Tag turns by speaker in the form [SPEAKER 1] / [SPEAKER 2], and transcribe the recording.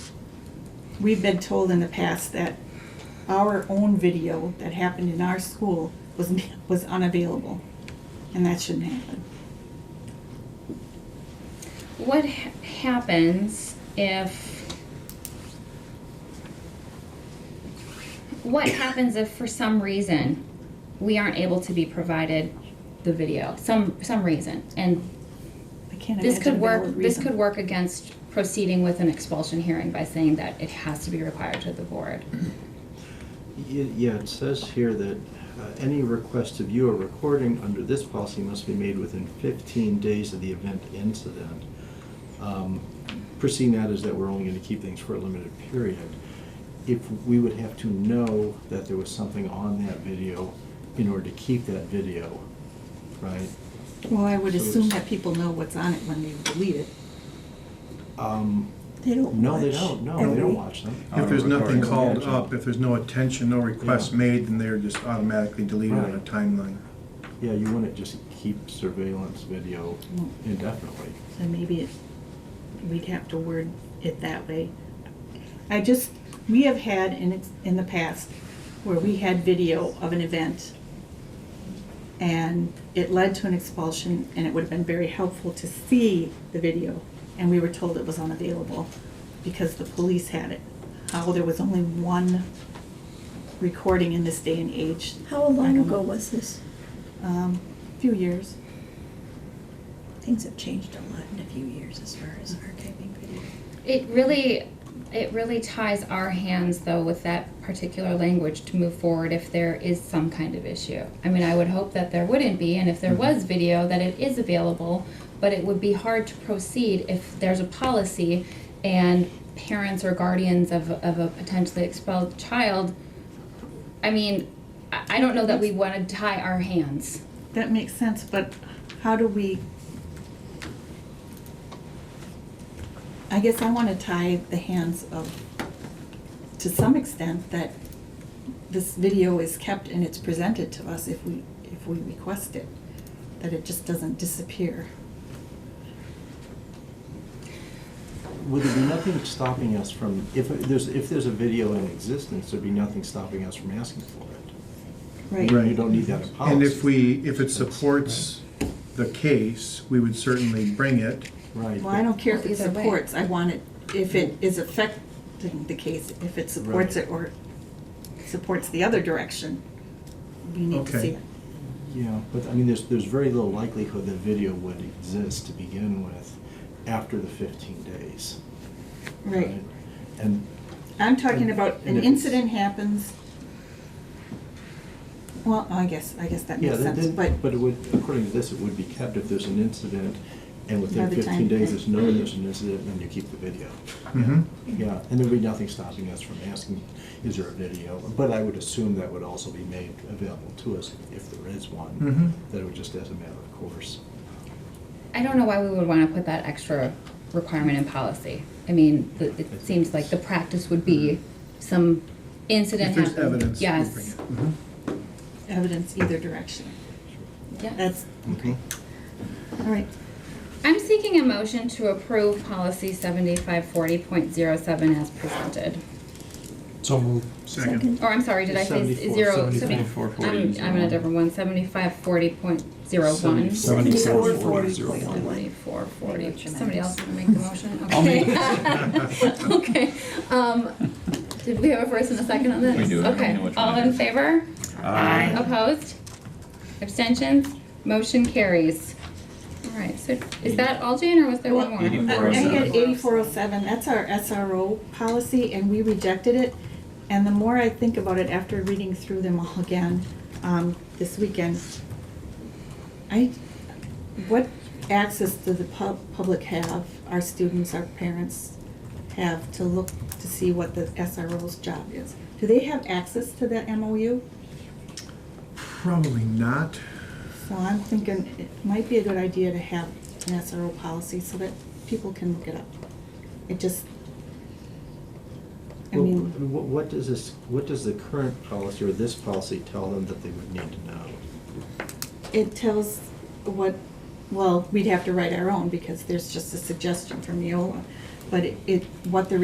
[SPEAKER 1] We've been told in the past that our own video that happened in our school was, was unavailable, and that shouldn't happen.
[SPEAKER 2] What ha- happens if? What happens if, for some reason, we aren't able to be provided the video? Some some reason, and
[SPEAKER 1] I can't
[SPEAKER 2] this
[SPEAKER 1] imagine a
[SPEAKER 2] could work.
[SPEAKER 1] valid
[SPEAKER 2] This
[SPEAKER 1] reason.
[SPEAKER 2] could work against proceeding with an expulsion hearing by saying that it has to be required to the board.
[SPEAKER 3] Ye- Yeah, it says here that uh, any request to view a recording under this policy must be made within 15 days of the event incident. Um, Perceiving that is that we're only going to keep things for a limited period. If we would have to know that there was something on that video in order to keep that video, right?
[SPEAKER 1] Well, I would
[SPEAKER 3] So
[SPEAKER 1] assume
[SPEAKER 3] it's-
[SPEAKER 1] that people know what's on it when they delete it.
[SPEAKER 3] Um,
[SPEAKER 1] They don't
[SPEAKER 3] No, they don't, no, they don't watch them.
[SPEAKER 4] If there's
[SPEAKER 5] Auto
[SPEAKER 4] nothing
[SPEAKER 5] recording.
[SPEAKER 4] called up, if there's no attention, no requests
[SPEAKER 3] Yeah.
[SPEAKER 4] made, then they're just automatically deleted on a
[SPEAKER 3] Right.
[SPEAKER 4] timeline.
[SPEAKER 3] Yeah, you wouldn't just keep surveillance video
[SPEAKER 1] No.
[SPEAKER 3] indefinitely.
[SPEAKER 1] So maybe it, we'd have to word it that way. I just, we have had in, ex- in the past where we had video of an event and it led to an expulsion and it would have been very helpful to see the video. And we were told it was unavailable because the police had it. How there was only one recording in this day and age.
[SPEAKER 6] How
[SPEAKER 1] I
[SPEAKER 6] long
[SPEAKER 1] don't
[SPEAKER 6] ago
[SPEAKER 1] know.
[SPEAKER 6] was this?
[SPEAKER 1] Um, few years.
[SPEAKER 6] Things have changed a lot in a few years as far as archiving video.
[SPEAKER 2] It really, it really ties our hands though with that particular language to move forward if there is some kind of issue. I mean, I would hope that there wouldn't be, and if there was video, that it is available, but it would be hard to proceed if there's a policy and parents or guardians of, of a potentially expelled child, I mean, I, I don't know that we wanna tie our hands.
[SPEAKER 1] That makes sense, but how do we? I guess I want to tie the hands of, to some extent, that this video is kept and it's presented to us if we, if we request it, that it just doesn't disappear.
[SPEAKER 3] Would there be nothing stopping us from, if there's, if there's a video in existence, there'd be nothing stopping us from asking for it.
[SPEAKER 4] Right.
[SPEAKER 3] You don't need that in policy.
[SPEAKER 4] And if we, if it supports the case, we would certainly bring it.
[SPEAKER 3] Right.
[SPEAKER 1] Well, I don't care if it
[SPEAKER 2] Either way.
[SPEAKER 1] supports, I want it, if it is affecting the case, if it supports
[SPEAKER 3] Right.
[SPEAKER 1] it or supports the other direction, we need to see
[SPEAKER 4] Okay.
[SPEAKER 1] it.
[SPEAKER 3] Yeah, but I mean, there's, there's very little likelihood that video would exist to begin with after the fifteen days.
[SPEAKER 1] Right.
[SPEAKER 3] And,
[SPEAKER 1] I'm talking about an
[SPEAKER 3] And if it's-
[SPEAKER 1] incident happens. Well, I guess, I guess that
[SPEAKER 3] yeah,
[SPEAKER 1] makes
[SPEAKER 3] then-
[SPEAKER 1] sense,
[SPEAKER 3] then-
[SPEAKER 1] but,
[SPEAKER 3] but it would, according to this, it would be kept if there's an incident, and
[SPEAKER 1] By
[SPEAKER 3] within
[SPEAKER 1] the
[SPEAKER 3] fifteen
[SPEAKER 1] time-
[SPEAKER 3] days, there's known there's an incident, then you keep the video.
[SPEAKER 4] Mhm.
[SPEAKER 3] Yeah, and there'd be nothing stopping us from asking, is there a video? But I would assume that would also be made available to us if there is one,
[SPEAKER 4] Mhm.
[SPEAKER 3] that it would just as a matter of course.
[SPEAKER 2] I don't know why we would want to put that extra requirement in policy. I mean, the- it seems like the practice would be some incident
[SPEAKER 4] Mm-hmm. If there's
[SPEAKER 2] happens.
[SPEAKER 4] evidence. we bring
[SPEAKER 2] Yes.
[SPEAKER 4] it.
[SPEAKER 1] evidence either direction.
[SPEAKER 2] Yeah.
[SPEAKER 1] That's,
[SPEAKER 3] Okay.
[SPEAKER 1] all right,
[SPEAKER 2] I'm seeking a motion to approve policy 7540.07 as presented.
[SPEAKER 5] So moved.
[SPEAKER 4] Second.
[SPEAKER 2] Or I'm sorry, did I say
[SPEAKER 3] 74,
[SPEAKER 2] zero?
[SPEAKER 5] 74,
[SPEAKER 2] I'm, I'm in a different one, 7540.01.
[SPEAKER 5] Seventy-
[SPEAKER 6] Seventy-four,
[SPEAKER 5] seventy-four,
[SPEAKER 6] forty,
[SPEAKER 5] zero,
[SPEAKER 6] point
[SPEAKER 5] one.
[SPEAKER 6] one.
[SPEAKER 2] 7440.
[SPEAKER 6] Thank you,
[SPEAKER 2] Somebody
[SPEAKER 6] tremendous.
[SPEAKER 2] else want to make the motion?
[SPEAKER 5] I'll make
[SPEAKER 2] Okay. Okay, um, did we have a first and a second on this?
[SPEAKER 7] We do, I don't
[SPEAKER 2] Okay,
[SPEAKER 7] know which one
[SPEAKER 2] all
[SPEAKER 7] it
[SPEAKER 2] in
[SPEAKER 7] is.
[SPEAKER 2] favor?
[SPEAKER 5] Aye.
[SPEAKER 2] Opposed? Abstentions? Motion carries. All right, so is that all, Jane, or was there one more?
[SPEAKER 1] I
[SPEAKER 7] Eighty-four
[SPEAKER 1] I
[SPEAKER 7] 8407.
[SPEAKER 1] had eighty-four oh seven, that's our SRO policy, and we rejected it. And the more I think about it after reading through them all again, um, this weekend, I, what access do the pub, public have, our students, our parents have to look to see what the SRO's job is? Do they have access to that MOU?
[SPEAKER 4] Probably not.
[SPEAKER 1] So I'm thinking it might be a good idea to have an SRO policy so that people can look it up. It just, I
[SPEAKER 3] Well,
[SPEAKER 1] mean,
[SPEAKER 3] wh- What does this, what does the current policy or this policy tell them that they would need to know?
[SPEAKER 1] it tells what, well, we'd have to write our own because there's just a suggestion from Neola. But it- it, what the